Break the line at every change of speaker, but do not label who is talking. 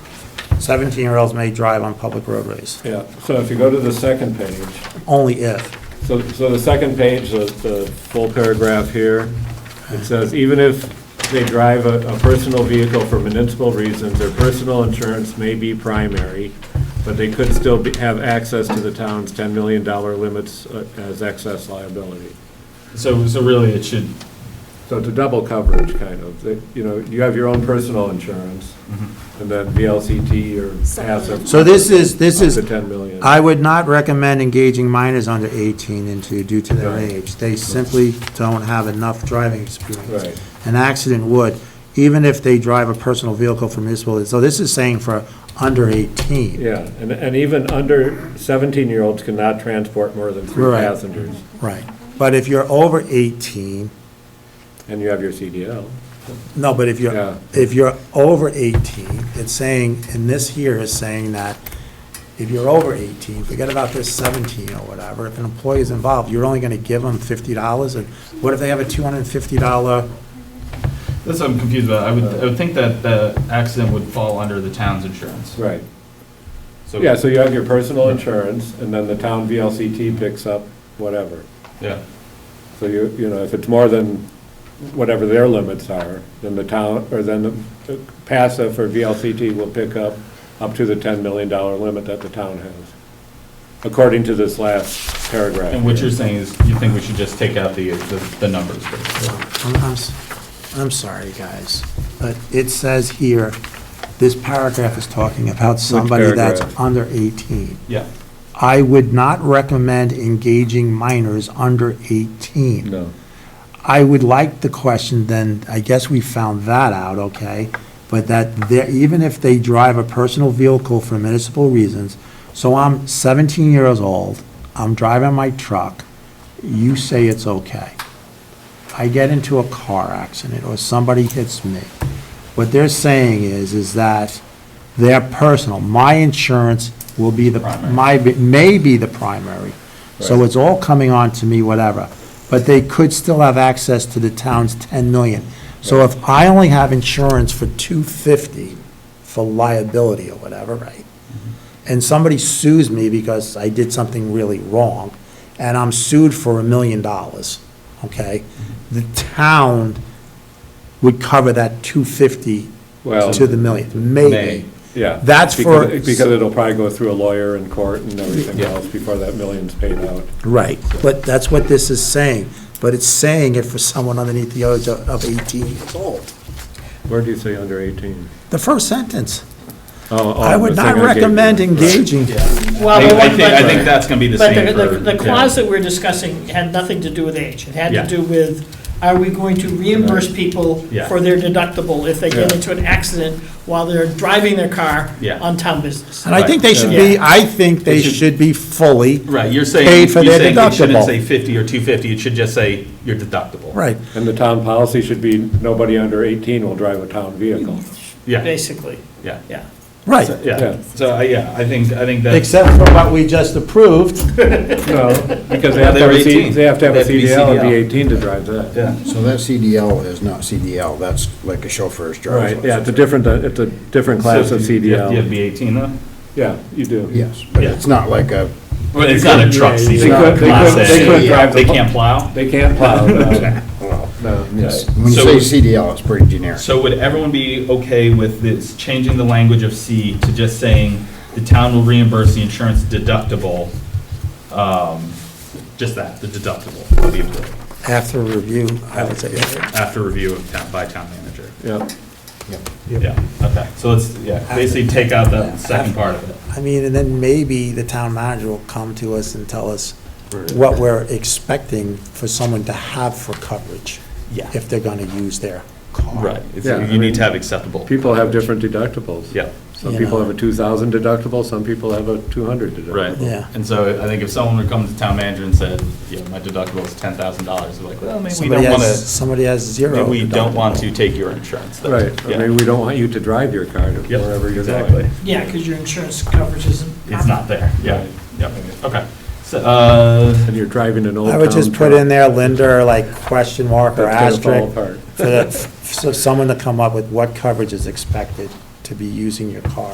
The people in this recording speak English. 17-year-olds may drive on public roadways,
Yeah, so if you go to the second page,
only if.
So, so the second page, the, the full paragraph here, it says, even if they drive a, a personal vehicle for municipal reasons, their personal insurance may be primary, but they could still be, have access to the town's ten million dollar limits uh, as excess liability.
So, so really, it should,
So it's a double coverage, kind of, That, you know, you have your own personal insurance, and then VLCT or passive.
So this is, this is,
Up to ten million.
I would not recommend engaging minors under 18 into, due to their
Right.
age. They simply don't have enough driving experience.
Right.
An accident would, even if they drive a personal vehicle for municipal, so this is saying for under 18.
Yeah, and, and even under 17-year-olds cannot transport more than three
Right.
passengers,
Right. But if you're over 18,
and you have your CDL.
No, but if
Yeah.
you're, if you're over 18, it's saying, and this here is saying that if you're over 18, forget about this 17 or whatever, if an employee is involved, you're only going to give them $50, and what if they have a $250?
that's what I'm confused about. I would,
Uh,
I would think that the accident would fall under the town's insurance.
Right.
So-
Yeah, so you have your personal insurance, and then the town VLCT picks up whatever.
Yeah.
So you, you know, if it's more than whatever their limits are, then the town, or then the passive or VLCT will pick up up to the $10 million limit that the town has, according to this last paragraph.
And what
here.
you're saying is, you think we should just take out the, the- the numbers, basically?
I'm, I'm s- I'm sorry, guys, but it says here, this paragraph is talking about somebody that's
paragraph?
under 18.
Yeah.
I would not recommend engaging minors under 18.
No.
I would like the question then, I guess we found that out, okay? But that there, even if they drive a personal vehicle for municipal reasons, so I'm seventeen years old, I'm driving my truck, you say it's okay. I get into a car accident or somebody hits me. What they're saying is, is that their personal, my insurance will be the,
Primary.
my, may be the primary. So
Right.
it's all coming on to me, whatever. But they could still have access to the town's 10 million. So if I only have insurance for 250 for liability or whatever, right?
Mm-hmm.
And somebody sues me because I did something really wrong, and I'm sued for a million dollars, okay?
Mm-hmm.
The town would cover that 250
Well-
to the million,
May.
maybe.
Yeah.
That's for-
Because because it'll probably go through a lawyer and court and everything
Yeah.
else before that million's paid out.
Right, but that's what this is saying, but it's saying it for someone underneath the age of of 18 years old.
Where do you say under 18?
The first sentence,
Oh,
Oh,
I would not recommend engaging.
I
Well,
think,
but
I
what-
think, I think
but,
that's gonna be the
but
same
the-
for.
the, the
yeah.
clause that we're discussing had nothing to do with age. It had
Yeah.
to do with, are we going to reimburse people
Yeah.
for their deductible if they get
Yeah.
into an accident while they're driving their car
Yeah.
on town business?
And I think they should be, I think they
It should-
should be fully.
Right, you're saying, you're
Paid for their
saying it shouldn't
deductible.
say fifty or two fifty, it should just say your deductible.
Right,
And the town policy should be, nobody under 18 will drive a town vehicle.
Yeah,
Basically,
yeah,
yeah.
So-
right,
Yeah.
yeah. So, I- yeah, I think, I think that's.
except for what we just approved.
No, because they have to have a,
They're
C-
18.
they have to have a
They have to be
CDL and be
CDL.
18 to drive that.
Yeah.
So that CDL is not CDL, that's like a chauffeur's
Right,
driver's
yeah, it's a
license.
different, uh, it's a different class
So
of
you- you have- You have
CDL.
to be eighteen though?
Yeah, you do.
Yes, but
Yeah.
it's not like a,
But it's not a truck
They
seat.
could, they could, they could drive.
They
the-
can't plow?
They can't plow, no,
well,
no.
it's- when
So-
you say CDL, it's pretty generic.
So would everyone be okay with this, changing the language of C to just saying the town will reimburse the insurance deductible? um, Just that, the deductible will be approved
After review, I would say,
after review of town, by town manager.
Yeah.
Yeah, okay, so let's, yeah, basically take out that second part of it.
I mean, and then maybe the town manager will come to us and tell us what we're expecting for someone to have for coverage.
Yeah.
If they're gonna use their car.
Right, it's-
Yeah, I
you need
mean,
to have acceptable.
People have different deductibles.
Yeah.
Some
You
people
know.
have a 2,000 deductible, some people have a 200 deductible.
Right.
Yeah.
And so I think if someone would come to town manager and said, yeah, my deductible is ten thousand dollars, they're like, well, maybe we
Somebody
don't want
has,
to,
somebody has zero.
maybe we don't want
deductible.
to take your insurance. then.
Right, I
Yeah.
mean, we don't want you to drive your car to
Yep,
wherever you're
Exactly.
going.
Yeah, because your insurance coverage isn't.
It's not there, yeah,
Right.
yeah, okay. So, uh,
And you're driving an old
I
town.
would just put
truck.
in there Linda, like question mark or
That's gonna fall
asterisk.
apart.
For that, for someone to come up with what coverage is expected to be using your car